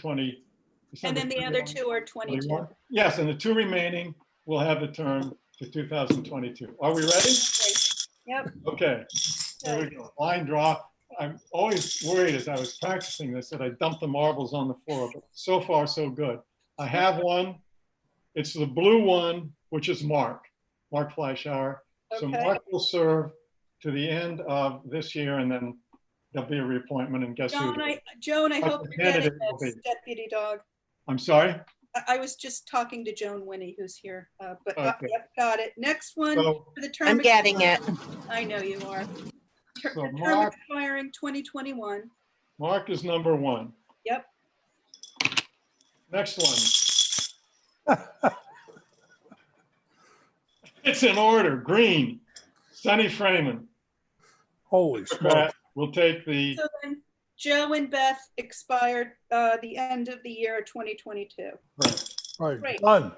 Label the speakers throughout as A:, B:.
A: 20.
B: And
A: December
B: then the other
A: 31.
B: two are 22.
A: 21. Yes, and the two remaining will have a term to 2022. Are we ready?
B: Yep.
A: Okay, there we go. Line draw. I'm always worried as I was practicing this that I dumped the marbles on the floor, but so far, so good. I have one. It's the blue one, which is Mark, Mark Fleischauer. So
B: Okay.
A: Mark will serve to the end of this year and then there'll be a reappointment and guess who?
B: Joan, I, Joan, I
A: But
B: hope
A: the
B: you're getting
A: candidate will
B: this
A: be-
B: deputy dog.
A: I'm sorry?
B: I, I was just talking to Joan Winnie, who's here, uh, but, uh,
A: Okay.
B: yep, got it. Next one for
A: So
B: the term.
C: I'm getting it.
B: I know you are. Ter-
A: So
B: Term
A: Mark-
B: expiring 2021.
A: Mark is number one.
B: Yep.
A: Next one. It's in order, green. Sunny Freeman
D: Holy
A: we
D: smoke.
A: will take the,
B: So then Joe and Beth expired, uh, the end of the year 2022.
D: Right,
B: Great.
D: done.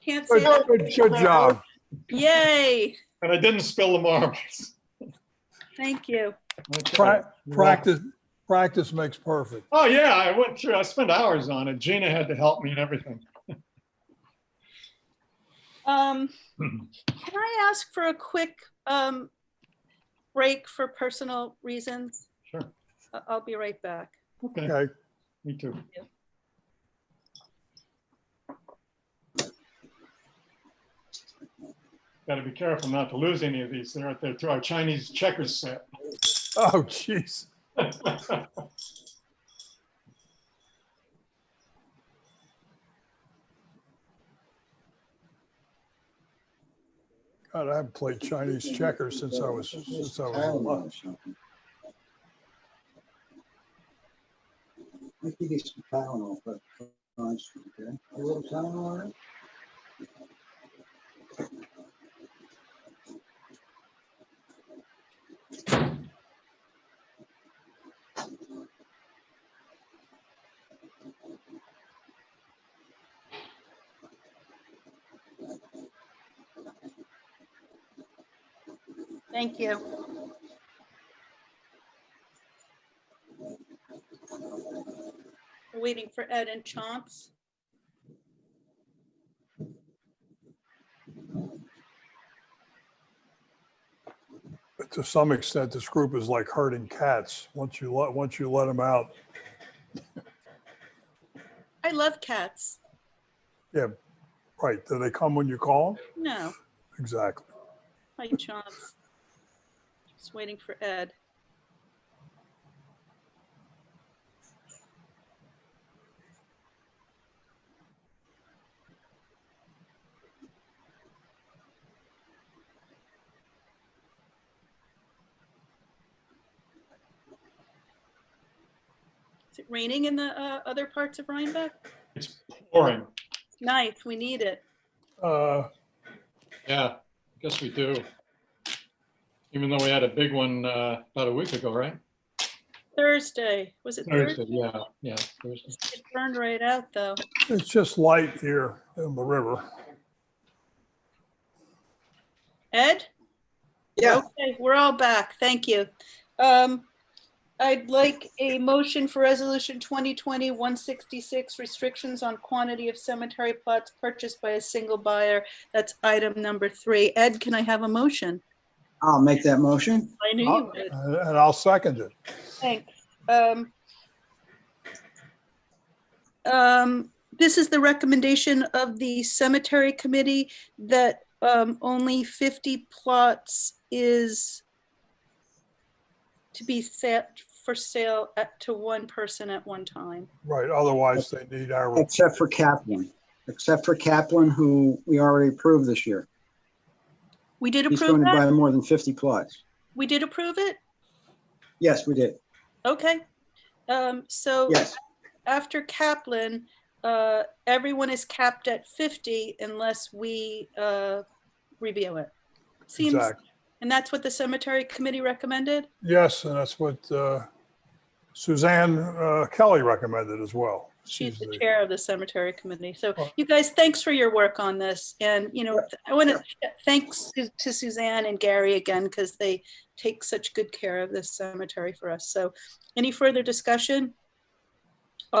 B: Can't say,
D: Good,
B: that-
D: good- good job.
B: yay,
A: and I didn't spill the marbles.
B: thank you.
A: Okay.
D: Pra- Practice, practice makes perfect.
A: Oh, yeah, I went through, I spent hours on it. Gina had to help me and everything.
B: Um, can I ask for a quick, um, break for personal reasons?
A: Sure.
B: I- I'll be right back.
A: Okay,
D: Okay,
A: me too. Got to be careful not to lose any of these. They're, they're to our Chinese checkers set.
D: oh, jeez. God, I haven't played Chinese checkers since I was, since I was. little.
E: I think it's Tylenol, but. okay? A little Tylenol, in it?
B: Thank you. We're Waiting for Ed and Chomps.
D: But To some extent, this group is like herding cats. Once you let, once you let them out,
B: I love cats.
D: right, do they come when you call 'em?
B: No,
D: Exactly.
B: hi Chomps. Just waiting for Ed. Is it raining in the uh, other parts of Rhinebeck?
A: It's pouring.
B: Nice, we need it.
D: Uh,
A: Yeah, I guess we do. Even though we had a big one uh, about a week ago, right?
B: Thursday, was it
A: Thursday,
B: Thursday?
A: yeah, yeah. Thursday.
B: It burned right out, though.
D: It's just light here in the river.
B: Ed?
E: Yeah.
B: Okay, we're all back. Thank you. Um, I'd like a motion for Resolution 2020-166, restrictions on quantity of cemetery plots purchased by a single buyer. That's item number three. Ed, can I have a motion?
E: I'll make that motion.
B: I knew you
D: I'll-
B: would.
D: And and I'll second it.
B: Thanks. Um, um, This is the recommendation of the cemetery committee that um, only 50 plots is to be set for sale at, to one person at one time.
D: Right, otherwise they need our,
E: Except for Kaplan, except for Kaplan, who we already approved this year.
B: We did
E: He's going
B: approve
E: to
B: that?
E: buy more than 50 plots.
B: We did approve it?
E: Yes, we did.
B: Okay. Um, So
E: Yes,
B: after Kaplan, uh, everyone is capped at 50 unless we uh, review it. Seems,
D: exact.
B: and that's what the cemetery committee recommended?
D: Yes, and that's what uh, Suzanne uh, Kelly recommended as well.
B: She's the chair of the cemetery committee. So
D: Oh.
B: you guys, thanks for your work on this. And, you know, I want to, thanks to- to Suzanne and Gary again, because they take such good care of this cemetery for us. So any further discussion?